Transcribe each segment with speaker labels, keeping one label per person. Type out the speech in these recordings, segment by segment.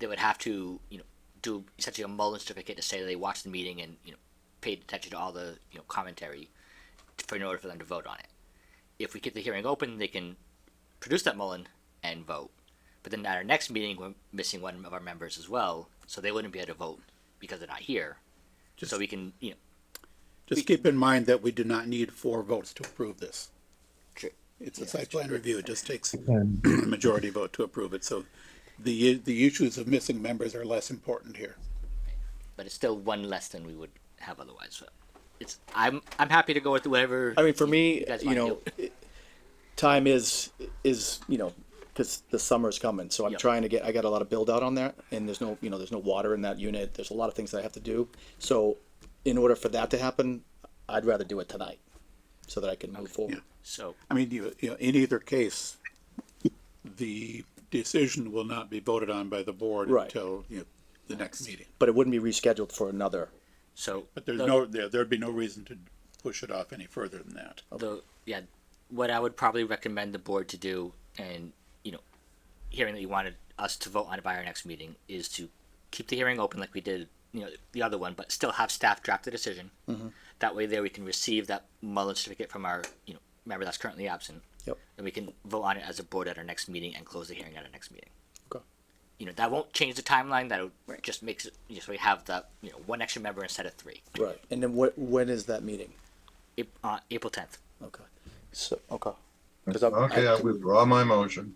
Speaker 1: they would have to you know do essentially a Mullen certificate to say they watched the meeting and you know paid attention to all the you know commentary for in order for them to vote on it. If we get the hearing open, they can produce that Mullen and vote. But then at our next meeting, we're missing one of our members as well, so they wouldn't be able to vote because they're not here. so we can you know
Speaker 2: Just keep in mind that we do not need four votes to approve this.
Speaker 1: Sure.
Speaker 2: It's a site plan review, it just takes a majority vote to approve it, so the, the issues of missing members are less important here.
Speaker 1: but it's still one less than we would have otherwise. So it's I'm I'm happy to go with whatever.
Speaker 3: I mean, for me,
Speaker 1: you guys
Speaker 3: you
Speaker 1: wanna
Speaker 3: know,
Speaker 1: do.
Speaker 3: it- time is is you know because the summer's coming, so I'm
Speaker 1: Yep.
Speaker 3: trying to get. I got a lot of build out on that, and there's no you know there's no water in that unit. There's a lot of things that I have to do. So, in order for that to happen, I'd rather do it tonight, so that I can move forward.
Speaker 1: so
Speaker 2: I mean, you, you know, in either case, the decision will not be voted on by the board
Speaker 3: Right.
Speaker 2: until, you know, the next meeting.
Speaker 3: But it wouldn't be rescheduled for another.
Speaker 1: so
Speaker 2: But there's no, there, there'd be no reason to push it off any further than that.
Speaker 1: the yeah what i would probably recommend the board to do and you know hearing that you wanted us to vote on it by our next meeting is to keep the hearing open like we did you know the other one but still have staff draft the decision
Speaker 3: Mm-hmm.
Speaker 1: that way there we can receive that mullen certificate from our you know member that's currently absent
Speaker 3: Yep.
Speaker 1: and we can vote on it as a board at our next meeting and close the hearing at our next meeting
Speaker 3: Okay.
Speaker 1: you know that won't change the timeline that just makes it just we have that you know one extra member instead of three
Speaker 3: Right. And then what? When is that meeting?
Speaker 1: Ap- uh, april 10th
Speaker 3: Okay. So okay. 'Cause I'm-
Speaker 4: Okay, I withdraw my motion.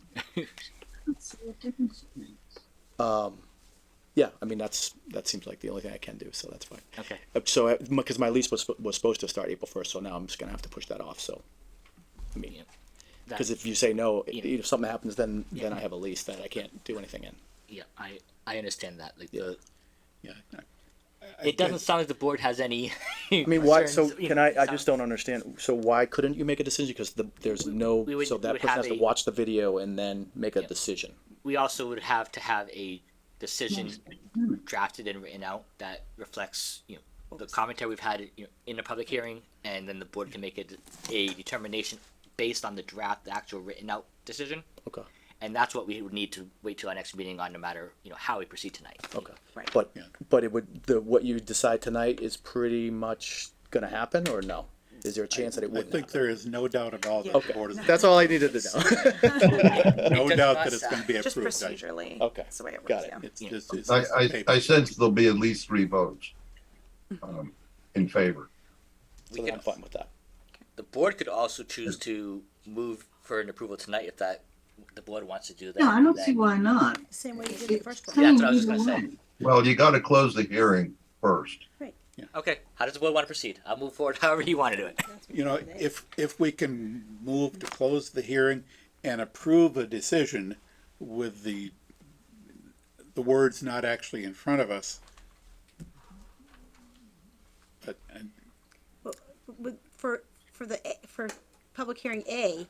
Speaker 3: Yeah. I mean, that's that seems like the only thing I can do. So that's fine.
Speaker 1: okay
Speaker 3: Uh, So, because my lease was, was supposed to start April first, so now I'm just gonna have to push that off, so. I mean,
Speaker 1: That-
Speaker 3: because if you say no, i-
Speaker 1: Yeah.
Speaker 3: if something happens, then, then I have a lease that I can't do anything in.
Speaker 1: yeah i i understand that like the
Speaker 2: Yeah.
Speaker 1: it doesn't sound like the board has any.
Speaker 3: I mean, why, so, can I, I just don't understand, so why couldn't you make a decision? Because the, there's no,
Speaker 1: we would-
Speaker 3: so
Speaker 1: we
Speaker 3: that
Speaker 1: would
Speaker 3: person
Speaker 1: have
Speaker 3: has to
Speaker 1: a-
Speaker 3: watch the video and then make a
Speaker 1: Yeah.
Speaker 3: decision.
Speaker 1: We also would have to have a decision drafted and written out that reflects, you know, the commentary we've had you know, in the public hearing, and then the board can make a, d- a determination based on the draft, the actual written out decision,
Speaker 3: Okay,
Speaker 1: and that's what we would need to wait till our next meeting on, no matter you know how we proceed tonight.
Speaker 3: okay.
Speaker 5: Right.
Speaker 3: But,
Speaker 2: Yeah.
Speaker 3: but it would, the, what you decide tonight is pretty much gonna happen, or no? Is there a chance that it
Speaker 2: I
Speaker 3: wouldn't
Speaker 2: think
Speaker 3: happen?
Speaker 2: there is no doubt at all that the
Speaker 3: Okay,
Speaker 2: board is,
Speaker 3: that's all I needed to know.
Speaker 2: no
Speaker 1: does
Speaker 2: doubt
Speaker 1: not
Speaker 2: that it's gonna be
Speaker 5: Just
Speaker 2: approved. I-
Speaker 5: procedurally.
Speaker 3: Okay,
Speaker 5: That's the way it
Speaker 3: got
Speaker 5: works,
Speaker 3: it.
Speaker 5: yeah.
Speaker 2: It's just, it's
Speaker 4: I,
Speaker 2: just
Speaker 4: I,
Speaker 2: paper.
Speaker 4: I sense there'll be at least three votes um, in favor.
Speaker 1: We
Speaker 3: So then
Speaker 1: could-
Speaker 3: I'm fine with that.
Speaker 1: The board could also choose to move for an approval tonight if that the board wants to do that.
Speaker 6: Yeah, I don't
Speaker 1: then-
Speaker 6: see why not.
Speaker 5: Same way you did the first
Speaker 6: It's
Speaker 1: Yeah,
Speaker 5: one.
Speaker 1: that's what I was just
Speaker 6: kind of
Speaker 1: gonna say.
Speaker 6: legal.
Speaker 4: Well, you gotta close the hearing first.
Speaker 1: Okay, how does the board want to proceed? I'll move forward however you want to do it.
Speaker 2: you know, if, if we can move to close the hearing and approve a decision with the, the words not actually in front of us. But, and,
Speaker 7: With, for, for the, A- for public hearing A,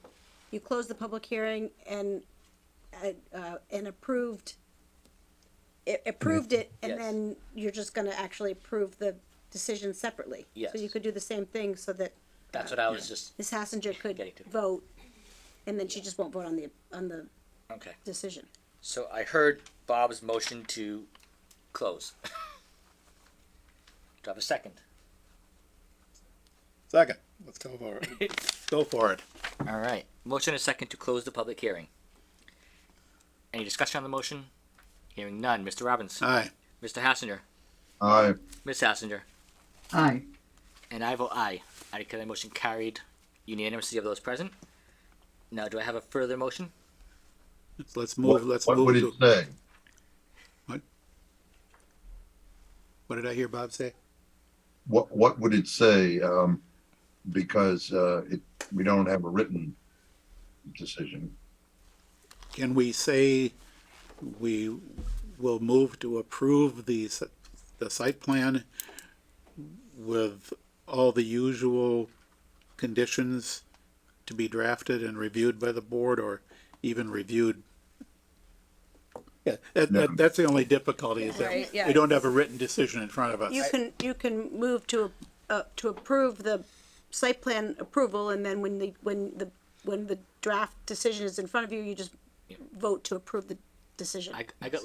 Speaker 7: you close the public hearing and, uh, uh, and approved, it approved it,
Speaker 1: Yes.
Speaker 7: and then you're just gonna actually approve the decision separately.
Speaker 1: Yes.
Speaker 7: So you could do the same thing so that
Speaker 1: That's what I was just,
Speaker 7: Ms. Hassinger could
Speaker 1: Getting to.
Speaker 7: vote, and then she just won't vote on the, on the
Speaker 1: okay.
Speaker 7: decision.
Speaker 1: So I heard Bob's motion to close. Do I have a second?
Speaker 2: second, let's go for it. Go for it.
Speaker 1: All right. Motion and second to close the public hearing. Any discussion on the motion? Hearing none. Mr. Robbins?
Speaker 2: Aye.
Speaker 1: Mr. Hassinger?
Speaker 4: I,
Speaker 1: Ms. Hassinger?
Speaker 6: Aye.
Speaker 1: And I vote aye. I declare the motion carried unanimously of those present. Now, do I have a further motion?
Speaker 2: So Let's
Speaker 4: what
Speaker 2: move, let's
Speaker 4: what would
Speaker 2: move
Speaker 4: it
Speaker 2: to,
Speaker 4: say?
Speaker 2: what did I hear Bob say?
Speaker 4: What, what would it say? Um, because, uh, it, we don't have a written decision.
Speaker 2: Can we say we will move to approve the, s- the site plan with all the usual conditions to be drafted and reviewed by the board or even reviewed? Yeah, that, that, that's the only difficulty is
Speaker 5: Right,
Speaker 2: that
Speaker 5: yeah.
Speaker 2: we don't have a written decision in front of us.
Speaker 7: You can, you can move to, uh, to approve the site plan approval, and then when the, when the, when the draft decision is in front of you, you just vote to approve the decision.
Speaker 1: I, I got